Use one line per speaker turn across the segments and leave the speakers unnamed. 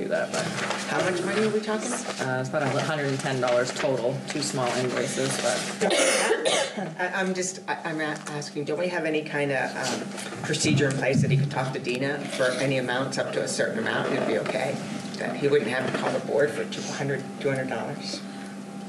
that, but
How much money are we talking?
uh, it's about hundred and ten dollars total, two small invoices, but
I, I'm just, I, I'm a- asking, don't we have any kind of um, procedure in place that he could talk to Dina for any amounts up to a certain amount and it'd be okay? That he wouldn't have to call the board for 200 $200?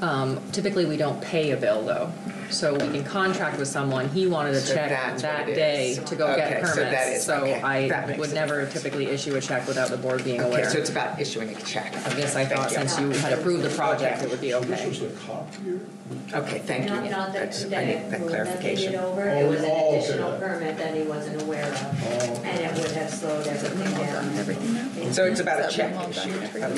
um, typically we don't pay a bill though. So we can contract with someone, he wanted a
So
check
that's
that
what it
day
is.
to go get
Okay, so
permits.
that is- okay, that
I
makes
would
a
never
difference.
typically issue a check without the board being
Okay,
aware.
so it's about issuing a check.
I guess I thought
Thank
since you had approved the project, it would be
This
okay.
was a copier?
Okay, thank
You
you.
know, you know, the,
That's-
that
I
it
need that
ruled that they did
clarification.
over,
Oh,
it was an
oh, okay.
additional permit that he wasn't aware
Oh.
of, and it would have slowed everything down.
So it's about a
Is that
check
one all
issue.
done?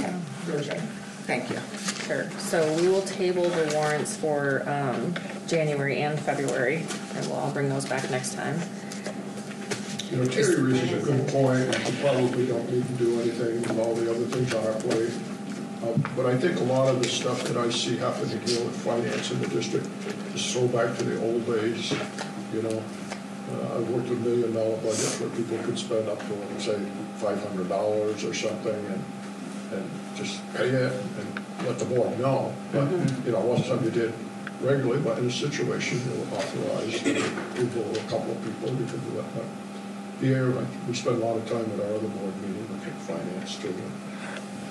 Okay, okay. Thank you.
Sure. So we will table the warrants for um, January and February, and we'll all bring those back next time.
You know, Terry raises a good point, and we probably don't need to do anything with all the other things on our plate. Um, But I think a lot of the stuff that I see happening here with finance in the district is so back to the old days, you know. Uh, I've worked a million dollar budgets where people could spend up to, let's say, five hundred dollars or something, and, and just pay it and let the board know. But, you know, it wasn't something you did regularly, but in a situation, you were authorized, people, a couple of people, you could do that. But here, like, we spend a lot of time at our other board meeting, looking at finance too. and,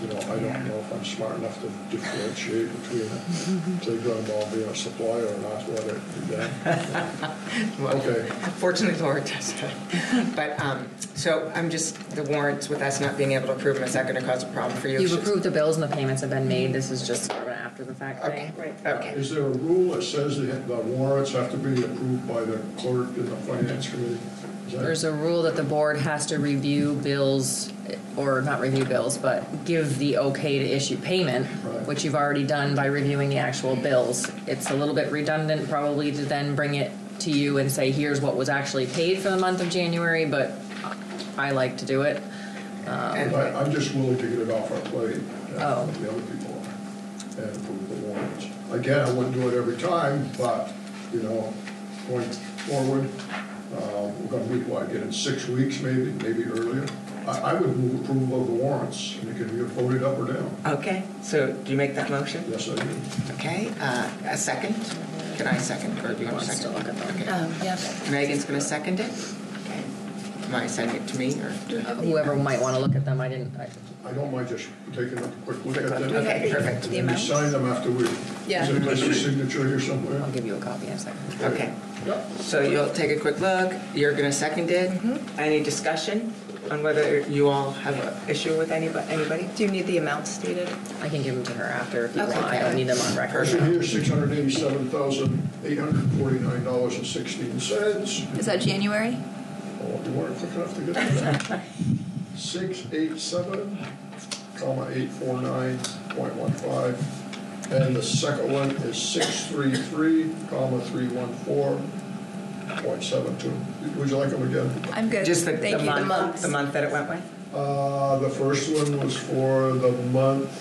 You know, I don't know if I'm smart enough to differentiate between a playground ball being a supplier or not, whether, yeah.
Well,
Okay.
Fortunately, Laura does that. But, um, so I'm just, the warrants with us not being able to approve them, is that going to cause a problem for you?
You've approved the bills and the payments have been made, this is just sort of an after-the-fact
Okay,
thing.
okay.
Is there a rule that says that the warrants have to be approved by the clerk and the finance committee? Is that-
There's a rule that the board has to review bills, or not review bills, but give the okay to issue payment,
Right.
which you've already done by reviewing the actual bills. It's a little bit redundant probably to then bring it to you and say, here's what was actually paid for the month of January, but I like to do it.
And-
I- I'm just willing to get it off our plate. and
Oh.
The other people are, and approve the warrants. Again, I wouldn't do it every time, but, you know, going forward, uh, we're gonna meet, what, again, in six weeks, maybe, maybe earlier. I, I would move approval of the warrants, and it can be voted up or down.
Okay, so do you make that motion?
Yes, I do.
Okay, uh, a second? Can I second, or do you want
Wants
to
to
second?
look at them.
Okay.
Um, yeah.
Megan's going to second it? Okay. Am I sending it to me, or?
Whoever might want to look at them, I didn't, I-
I don't mind just taking a quick look at them.
Okay, perfect.
And then we sign them after we,
Yeah.
is there a place for signature here somewhere?
I'll give you a copy in a second.
Okay,
Yep.
so you'll take a quick look, you're going to second it?
Mm-hmm.
Any discussion on whether you all have an issue with anybody, anybody?
Do you need the amount stated?
I can give them to her after if you want,
Okay.
I don't need them on record.
Actually, here's six hundred eighty-seven thousand, eight hundred forty-nine dollars and sixteen cents.
Is that January?
Oh, you weren't quick enough to get to that. Six eight seven, comma, eight four nine, point one five. And the second one is six three three, comma, three one four, point seven two. Would you like them again?
I'm good.
Just the
Thank
the
you.
month, the month that it went with?
Uh, the first one was for the month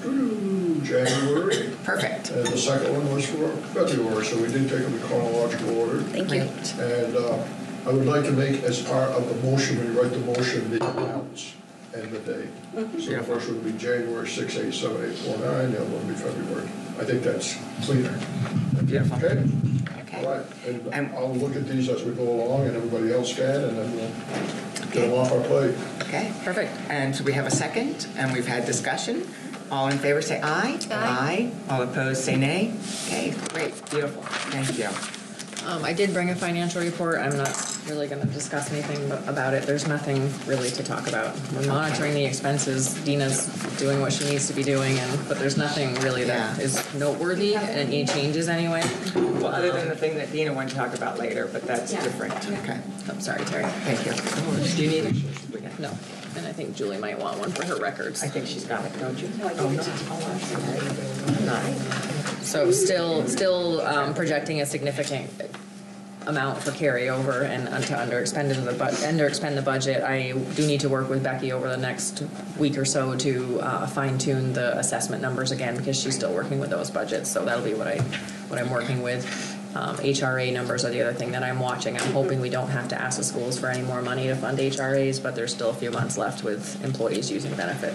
of January.
Perfect.
And Uh, the second one was for February, so we did take them in chronological order.
Thank you.
Great.
And uh, I would like to make as part of the motion, when you write the motion, the amounts and the date.
Mm-hmm.
So the first one would be January 6, 8, 7, 8, 4, 9, the other one would be February. I think that's cleaner.
Beautiful.
Okay?
Okay.
All right, and
And-
I'll look at these as we go along and everybody else can, and then we'll get them off our plate.
Okay.
Perfect.
And so we have a second, and we've had discussion. All in favor, say aye.
Aye.
All opposed, say nay. Okay, great, beautiful, thank you.
Um, I did bring a financial report. I'm not really gonna discuss anything bu- about it. There's nothing really to talk about. We're monitoring the expenses. Dina's doing what she needs to be doing and, but there's nothing really that
Yeah.
is noteworthy and any changes anyway.
Well, other than the thing that Dina wanted to talk about later, but that's
Yeah.
different. Okay,
I'm Oh, sorry, Terry.
thank you. Do you need it?
No. And I think Julie might want one for her records.
I think she's got it, don't you? Oh,
No, I gave it to-
So still, still um, projecting a significant amount for carryover and un- to under expend into the bu- under expend the budget. I do need to work with Becky over the next week or so to uh, fine tune the assessment numbers again because she's still working with those budgets. So that'll be what I what I'm working with. Um, HRA numbers are the other thing that I'm watching. I'm hoping we don't have to ask the schools for any more money to fund HRAs, but there's still a few months left with employees using benefits.